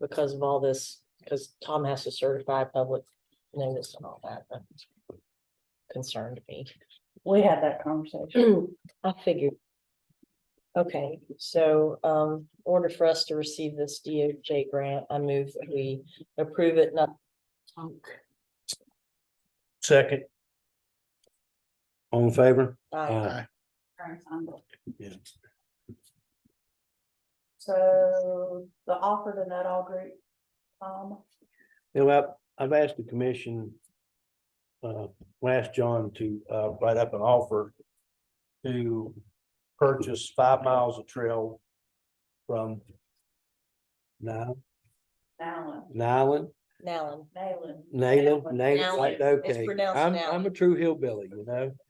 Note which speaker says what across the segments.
Speaker 1: because of all this, because Tom has to certify public notice and all that, but concerned me.
Speaker 2: We had that conversation.
Speaker 1: Mm. I figured. Okay, so um, in order for us to receive this DOJ grant, I move that we approve it, not.
Speaker 3: Second. All in favor?
Speaker 1: Aye.
Speaker 3: Uh. Yeah.
Speaker 2: So the offer to that all group, um,
Speaker 3: You know, I've, I've asked the commission. Uh, last John to, uh, write up an offer. To purchase five miles of trail. From. Now,
Speaker 2: Allen,
Speaker 3: Nyland,
Speaker 1: Nallen.
Speaker 2: Nayland.
Speaker 3: Nayland, Nayland,
Speaker 1: Nowlan.
Speaker 3: like,
Speaker 1: It's
Speaker 3: okay,
Speaker 1: pronounced
Speaker 3: I'm,
Speaker 1: Nowlan.
Speaker 3: I'm a true hillbilly, you know?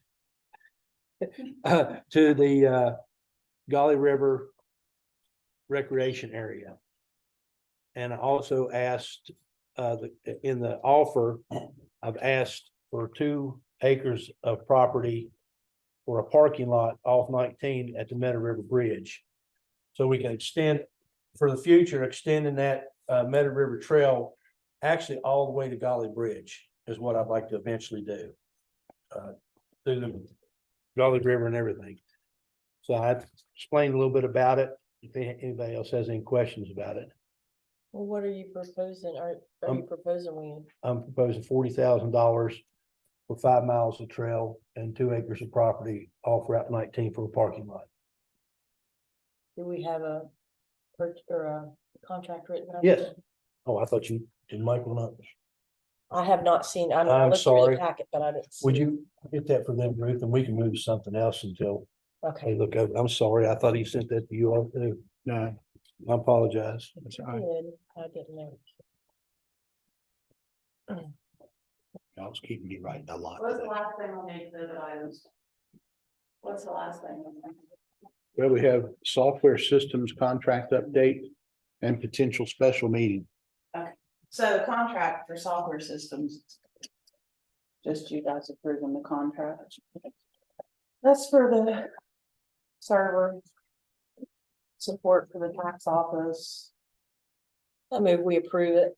Speaker 3: Uh, to the, uh, Golly River Recreation Area. And I also asked, uh, the, in the offer, I've asked for two acres of property for a parking lot off nineteen at the Meadow River Bridge. So we can extend, for the future, extending that, uh, Meadow River Trail actually all the way to Golly Bridge is what I'd like to eventually do. uh, Through the Golly River and everything. So I explained a little bit about it. If any- anybody else has any questions about it,
Speaker 1: Well, what are you proposing? Are, are you
Speaker 3: Um,
Speaker 1: proposing we,
Speaker 3: I'm proposing forty thousand dollars for five miles of trail and two acres of property off Route nineteen for a parking lot.
Speaker 1: do we have a, per- or a contract written? up?
Speaker 3: Yes. Oh, I thought you did Michael not.
Speaker 1: I have not seen, I'm. I
Speaker 3: I'm
Speaker 1: looked through the
Speaker 3: sorry.
Speaker 1: Packet, but I didn't.
Speaker 3: Would
Speaker 1: see-
Speaker 3: you get that for them, Ruth, and we can move to something else until they
Speaker 1: Okay.
Speaker 3: look over. I'm sorry. I thought he sent that to you all too.
Speaker 4: No,
Speaker 3: I apologize.
Speaker 4: that's all right.
Speaker 1: Good. I didn't know.
Speaker 4: I was keeping me right a lot.
Speaker 2: What's the last thing on the exhibit items? What's the last thing?
Speaker 4: Well, we have software systems contract update and potential special meeting.
Speaker 2: So the contract for software systems. Just you guys approving the contract. That's for the server. Support for the tax office.
Speaker 1: I move we approve it.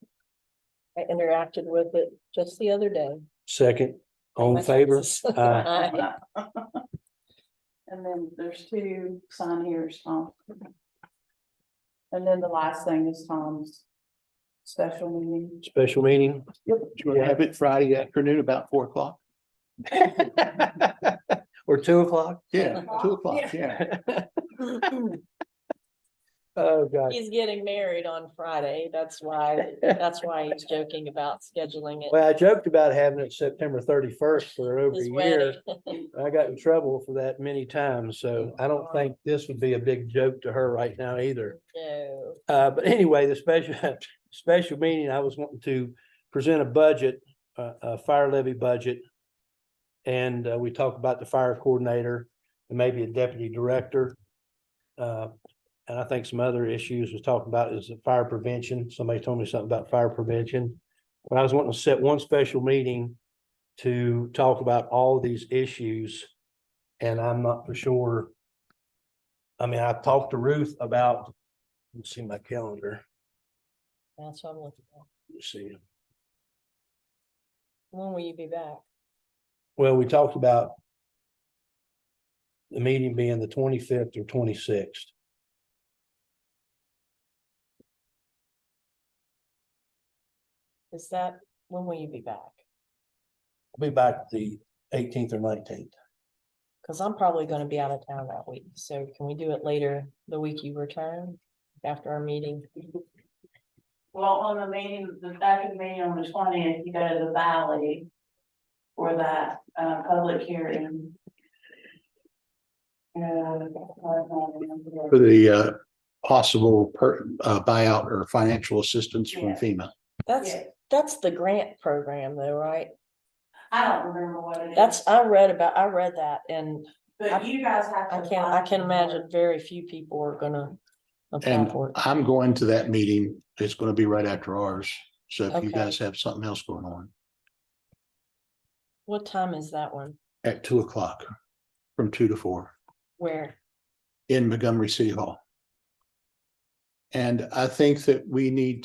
Speaker 1: I interacted with it just the other day.
Speaker 3: Second, all in favor? Aye.
Speaker 1: Aye.
Speaker 2: And then there's two sign here, Tom. And then the last thing is Tom's special meeting.
Speaker 3: Special meeting,
Speaker 4: Yep. Do you want to have it Friday afternoon about four o'clock?
Speaker 3: or two o'clock?
Speaker 4: Yeah, two o'clock, yeah.
Speaker 3: Oh, God.
Speaker 1: He's getting married on Friday. That's why, that's why he's joking about scheduling it.
Speaker 3: Well, I joked about having it September thirty-first for over a
Speaker 1: His
Speaker 3: year.
Speaker 1: wedding.
Speaker 3: I got in trouble for that many times, so I don't think this would be a big joke to her right now either.
Speaker 1: No.
Speaker 3: Uh, but anyway, the special, special meeting, I was wanting to present a budget, uh, a fire levy budget. And, uh, we talked about the fire coordinator and maybe a deputy director. Uh, and I think some other issues was talking about is the fire prevention. Somebody told me something about fire prevention. But I was wanting to set one special meeting to talk about all these issues. And I'm not for sure. I mean, I've talked to Ruth about Let's see my calendar.
Speaker 1: That's what I'm looking at.
Speaker 3: Let's see.
Speaker 1: When will you be back?
Speaker 3: Well, we talked about the meeting being the twenty-fifth or twenty-sixth.
Speaker 1: Is that, when will you be back?
Speaker 3: I'll be back the eighteenth or nineteenth.
Speaker 1: Cause I'm probably gonna be out of town that week. So can we do it later, the week you return after our meeting?
Speaker 2: Well, on the meeting, the second meeting on the twentieth, you go to the valley. For that, uh, public hearing.
Speaker 4: For
Speaker 2: Uh,
Speaker 4: the uh possible per uh buyout or financial assistance from
Speaker 2: Yeah.
Speaker 4: FEMA.
Speaker 1: That's, that's the grant program though, right?
Speaker 2: I don't remember what it is.
Speaker 1: That's, I read about, I read that and
Speaker 2: But you guys have to.
Speaker 1: I can, I
Speaker 2: apply
Speaker 1: can
Speaker 2: for it.
Speaker 1: imagine very few people are gonna apply
Speaker 4: And
Speaker 1: for it.
Speaker 4: I'm going to that meeting. It's going to be right after ours. So if
Speaker 1: Okay.
Speaker 4: you guys have something else going on
Speaker 1: What time is that one?
Speaker 4: at two o'clock from two to four.
Speaker 1: Where?
Speaker 4: in Montgomery City Hall. And I think that we need